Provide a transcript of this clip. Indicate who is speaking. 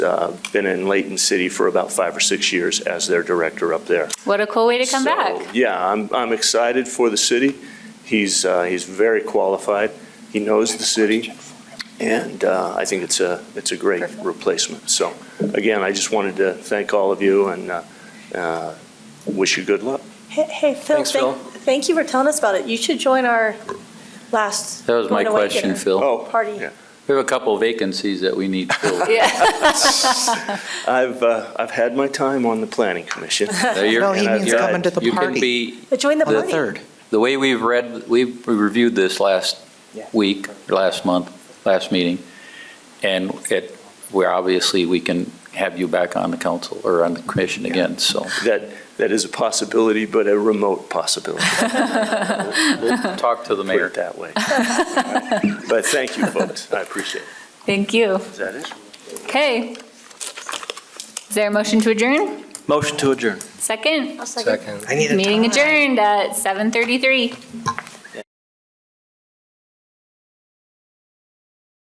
Speaker 1: uh, been in Layton City for about five or six years as their director up there.
Speaker 2: What a cool way to come
Speaker 1: So,
Speaker 2: back.
Speaker 1: Yeah, I'm, I'm excited for the city. He's, uh, he's very qualified. He knows the city. And uh, I think it's a, it's a great replacement. So again, I just wanted to thank all of you and uh, uh, wish you good luck.
Speaker 3: Hey- Hey, Phil,
Speaker 4: Thanks,
Speaker 3: thank, thank you for telling us about it. You should join our last.
Speaker 4: That was my
Speaker 3: going away
Speaker 4: question,
Speaker 3: dinner
Speaker 4: Phil.
Speaker 1: Oh,
Speaker 3: Party.
Speaker 1: yeah.
Speaker 4: We have a couple vacancies that we need filled.
Speaker 2: Yeah.
Speaker 1: I've, uh, I've had my time on the planning commission.
Speaker 4: Now, you're-
Speaker 5: No, he
Speaker 4: and
Speaker 1: means
Speaker 4: you're-
Speaker 5: coming to the
Speaker 4: You can
Speaker 5: party.
Speaker 4: be,
Speaker 3: But Uh, Join the
Speaker 4: The
Speaker 3: party.
Speaker 5: third.
Speaker 4: the way we've read, we we reviewed this last week, or last month, last meeting, and it, where obviously we can have you back on the council or on the commission again, so
Speaker 1: That, that is a possibility, but a remote possibility,
Speaker 4: we'll talk to the
Speaker 1: put
Speaker 4: mayor.
Speaker 1: it that way. But thank you, folks. I appreciate it.
Speaker 2: Thank you.
Speaker 1: Is that it?
Speaker 2: Okay. Is there a motion to adjourn?
Speaker 6: Motion to adjourn.
Speaker 2: Second?
Speaker 3: I'll second.
Speaker 2: Meeting adjourned at 7:33.